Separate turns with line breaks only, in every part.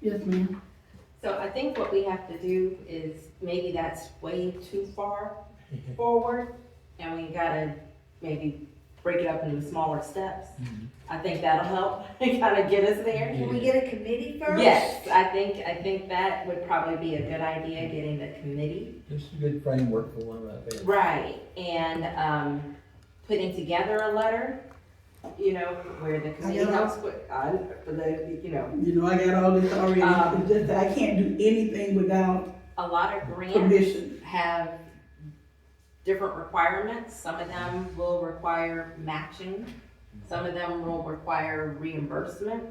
Yes, ma'am.
So I think what we have to do is, maybe that's way too far forward, and we gotta maybe break it up into smaller steps.
Mhm.
I think that'll help, kind of get us there.
Can we get a committee first?
Yes, I think, I think that would probably be a good idea, getting the committee.
This is a good framework for one right there.
Right, and, um, putting together a letter, you know, where the committee
know.
helps with, uh, for the, you know,
You know, I got all this already,
Um,
it's just that I can't do anything without
a lot of grants
permission.
have different requirements. Some of them will require matching, some of them will require reimbursement.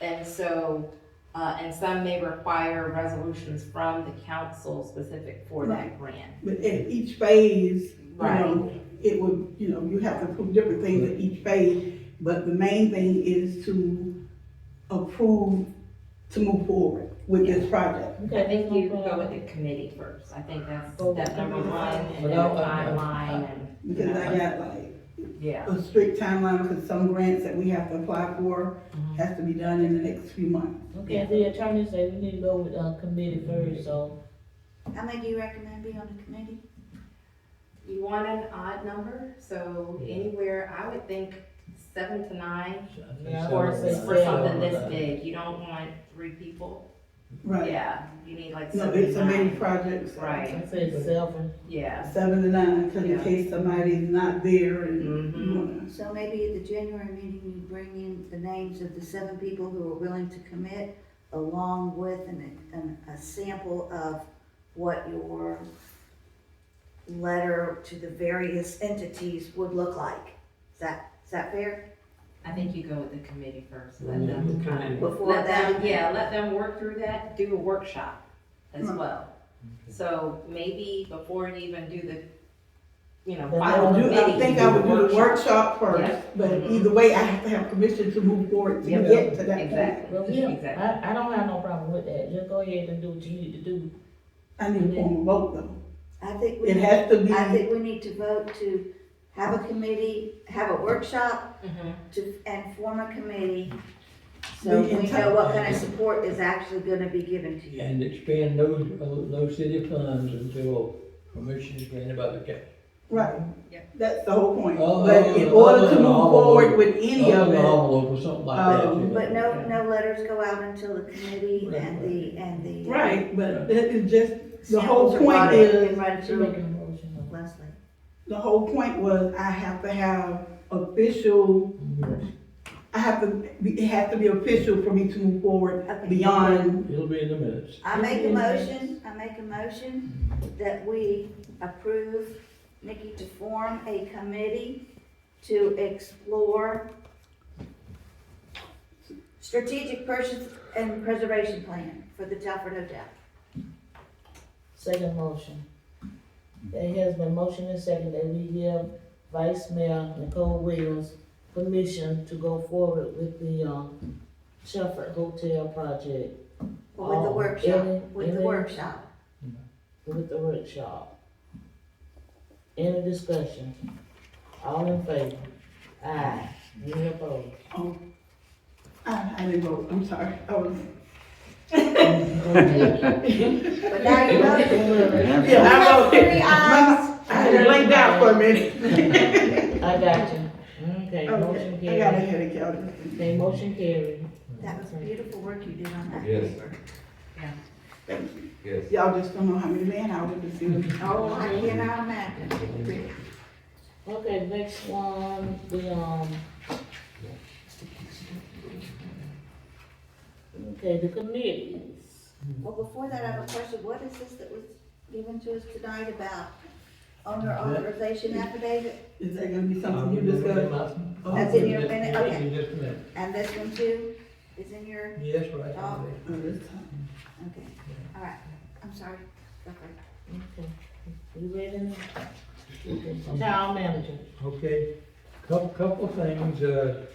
And so, uh, and some may require resolutions from the council specific for that grant.
But at each phase, you
Right,
know, it would, you know, you have to approve different things at each phase, but the main thing is to approve to move forward with this project.
I think you
uh,
go with the committee first, I think that's
Oh,
step number one, and then the
Well, I- I-
timeline and, you
Because
know,
I got like
yeah.
a strict timeline, because some grants that we have to apply for
Mm-hmm.
has to be done in the next few months.
Okay, the attorney said we need to go with, uh, committee first, so.
How many do you recommend be on the committee?
You want an odd number, so anywhere, I would think seven to nine,
Yeah, I
or
would say
for
seven.
something this big, you don't want three people.
Right.
Yeah, you need like
No,
seven
it's
to
a main
nine.
project. so
Right,
I said seven.
yeah.
Seven to nine, because in
Yeah.
case somebody's not there and you
Mhm.
Mm-hmm.
wanna-
So maybe at the January meeting, you bring in the names of the seven people who are willing to commit along with an, an, a sample of what your letter to the various entities would look like. Is that, is that fair?
I think you go with the committee first, let
Yeah,
them
okay.
kind of,
Before
let them,
that-
yeah, let them work through that, do a workshop as
Right.
well. So maybe before you even do the, you know,
Well, I
I
final
would do, I
committee.
think I would do the workshop
Yeah.
first, but
Mhm.
either way, I have to have permission to move forward to
Yeah.
get to that point.
Exactly,
Well, yeah,
exactly.
I, I don't have no problem with that, just go ahead and do what you need to do.
I need a
Mm-hmm.
formal vote though.
I think
It
we,
has to be,
I think we need to vote to have a committee, have a workshop
Uh-huh.
Mhm.
to, and form a committee. So
The
we know
entire-
what kind of support is actually gonna be given to you.
And expand no, no city funds until permission is granted by the council.
right.
Yeah.
That's the whole point.
Oh,
But in
oh,
order
oh,
to move
oh,
forward with any of
Open
it,
envelope or something like that.
Um,
you know.
Oh, But no, no letters go out until the committee and the, and the. uh,
right, but that is just, the
samples
whole
are
point
routed
is,
and routed
She
to
making a motion on
Leslie.
the whole point was I have to have official,
Mhm.
I have to, it has to be official for me to move forward
Okay.
beyond,
It'll be in the minutes.
I make a motion, I make a motion that we approve Nikki to form a committee to explore strategic purchase and preservation plan for the Telford Hotel.
Second motion. It has been motion and second that we give Vice Mayor Nicole Williams permission to go forward with the, um, Shepherd Hotel project.
With the
Um,
workshop,
any-
with the
any-
workshop.
with the workshop. Any discussion? All in favor? Aye. Any opposed?
Oh. Uh, I, I didn't vote, I'm sorry, I was.
But now you know.
Yeah,
We
I voted.
have three ayes.
I had to lay down for a minute.
I got you. Okay, motion
Okay, I got a
carried.
headache, y'all.
Okay, motion carried.
That was beautiful work you did on that
Yes.
paper.
Thank you.
Yes.
Y'all just don't know how many man hours this is.
Oh, I cannot imagine.
Okay, next one, the, um. Okay, the committees.
Well, before that, I have a question. What is this that was given to us tonight about owner authorization affidavit?
Is that gonna be something you discuss?
That's in your minute, okay.
In just a minute.
And this one too is in your,
Yes, right.
Oh.
Oh, this time.
okay, all right. I'm sorry. Okay.
Okay, You ready? Town manager.
Okay, couple, couple of things, uh,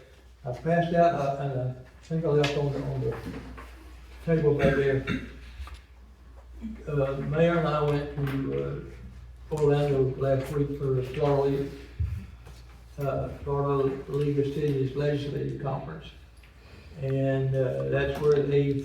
I passed out, uh, and I think I left on the, on the table back there. Uh, Mayor and I went to, uh, Orlando last week for the Florida League, uh, Florida League of Cities Legislative Conference. And, uh, that's where they